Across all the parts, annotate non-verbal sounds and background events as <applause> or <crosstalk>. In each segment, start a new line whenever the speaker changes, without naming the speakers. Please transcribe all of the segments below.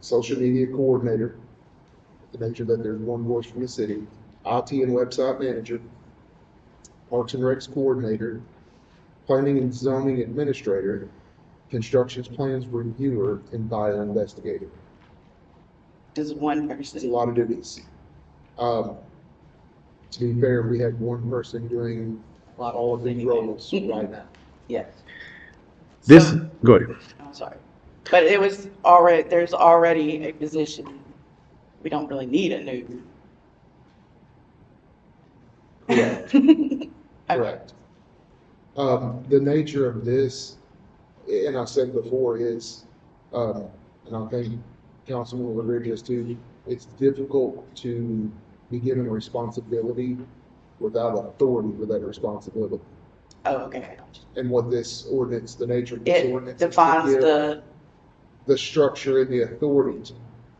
social media coordinator, to make sure that there's one voice from the city, IT and website manager, parks and recs coordinator, planning and zoning administrator, construction plans reviewer, and bio investigator.
Just one
It's a
person.
lot of duties. Um, to be fair, we had one person doing all of these roles right now.
Yes.
This,
So-
go ahead.
I'm sorry. But it was already, there's already a position. We don't really need a new. <laughs>
Correct.
Okay.
Correct. Um, the nature of this, and I said before, is, um, and I think Councilman Rodriguez too, it's difficult to be given a responsibility without authority for that responsibility.
Oh, okay.
And what this ordinance, the nature of this
It
ordinance. is to
defines
give
the,
The structure and the authority to,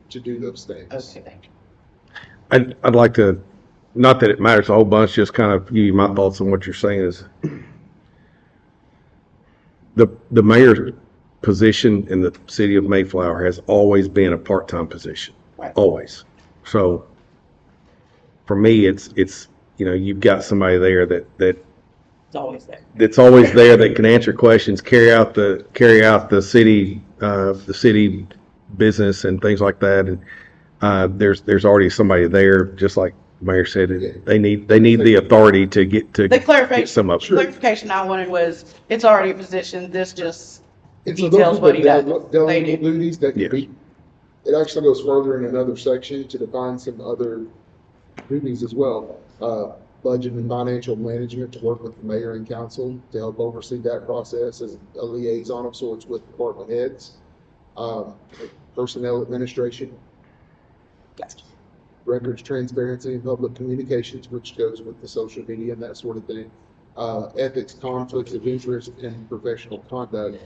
to do those things.
okay, thank you.
I'd, I'd like to, not that it matters a whole bunch, just kind of give you my thoughts on what you're saying is the, the mayor's position in the city of Mayflower has always been a part-time position,
Right.
always. So for me, it's, it's, you know, you've got somebody there that, that
It's always there.
that's always there that can answer questions, carry out the, carry out the city, uh, the city business and things like that. And, uh, there's, there's already somebody there, just like the Mayor said, it- they need, they need the authority to get, to
The
get
clarification,
some of it.
clarification I wanted was, it's already a position, this just,
And so those
details
are
what he
the
does.
dele- Delegated
They do.
duties that can
Yes.
be, it actually goes further in another section to define some other duties as well. Uh, budget and financial management to work with the mayor and council to help oversee that process as a liaison of sorts with department heads. Um, personnel administration,
gotcha.
records transparency and public communications, which goes with the social media and that sort of thing. Uh, ethics, conflicts of interest, and professional conduct,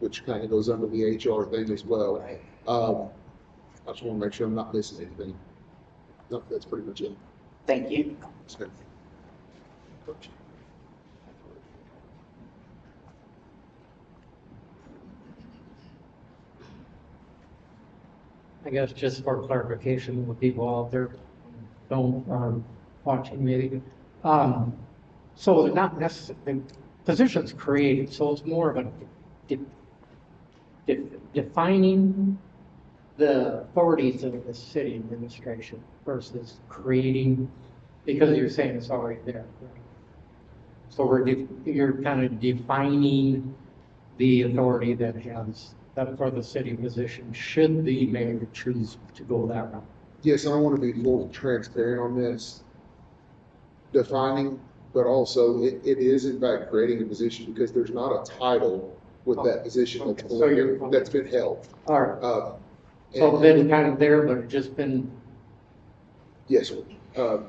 which kind of goes under the HR thing as well.
Right.
Um, I just want to make sure I'm not missing anything. No, that's pretty much it.
Thank you.
I guess just for clarification with people out there, don't, um, watching me. Um, so they're not necessarily, positions created, so it's more of a de- de- defining the authorities of the city administration versus creating, because you're saying it's already there. So we're, de- you're kind of defining the authority that has, that for the city position, should the mayor choose to go that route.
Yes, I want to be full transparent on this. Defining, but also it, it is in fact creating a position because there's not a title with that position that's,
Okay, so you're-
that's been held.
All right,
Um,
so
and-
it's been kind of there, but it's just been,
Yes, sir. Um,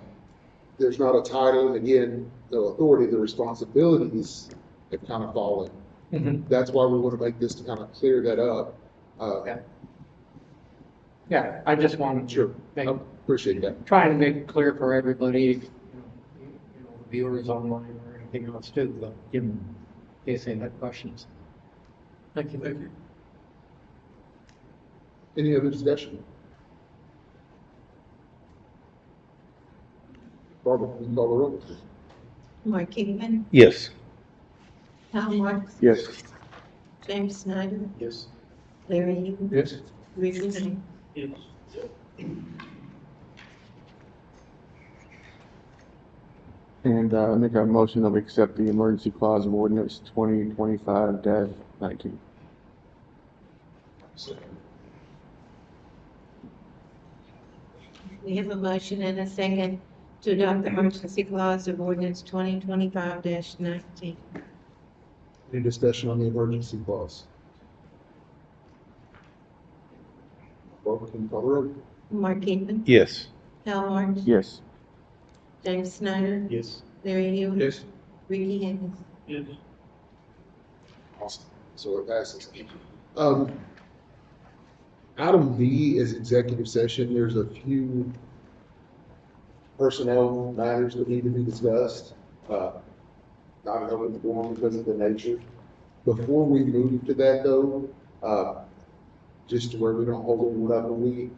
There's not a title, and again, no authority, the responsibilities have kind of fallen.
Mhm.
That's why we want to make this to kind of clear that up. Uh,
Okay. yeah, I just wanted
Sure.
to
I
make,
Appreciate that.
trying to make it clear for everybody, you know, viewers online or anything else too, though, give them, in case they have questions. Thank you. Thank you.
Any other discussion? Barbara, you can call the roll.
Mark Kigman,
Yes.
Tom Marks,
Yes.
James Snyder,
Yes.
Larry Hill,
Yes.
Richard Lane.
And uh, I make a motion that we accept the emergency clause of ordinance twenty twenty-five dash nineteen.
We have a motion and a second to adopt the emergency clause of ordinance twenty twenty-five nineteen.
Any discussion on the emergency clause? Barbara, can you call the roll?
Mark Kigman,
Yes.
Hal Marks,
Yes.
James Snyder,
Yes.
Larry Hill,
Yes.
Ricky Henderson.
Awesome. So it passes. Um, item B is executive session. There's a few personnel matters that need to be discussed. Uh, not an open forum because of the nature. Before we move to that though, uh, just to where we don't hold anyone up. And we,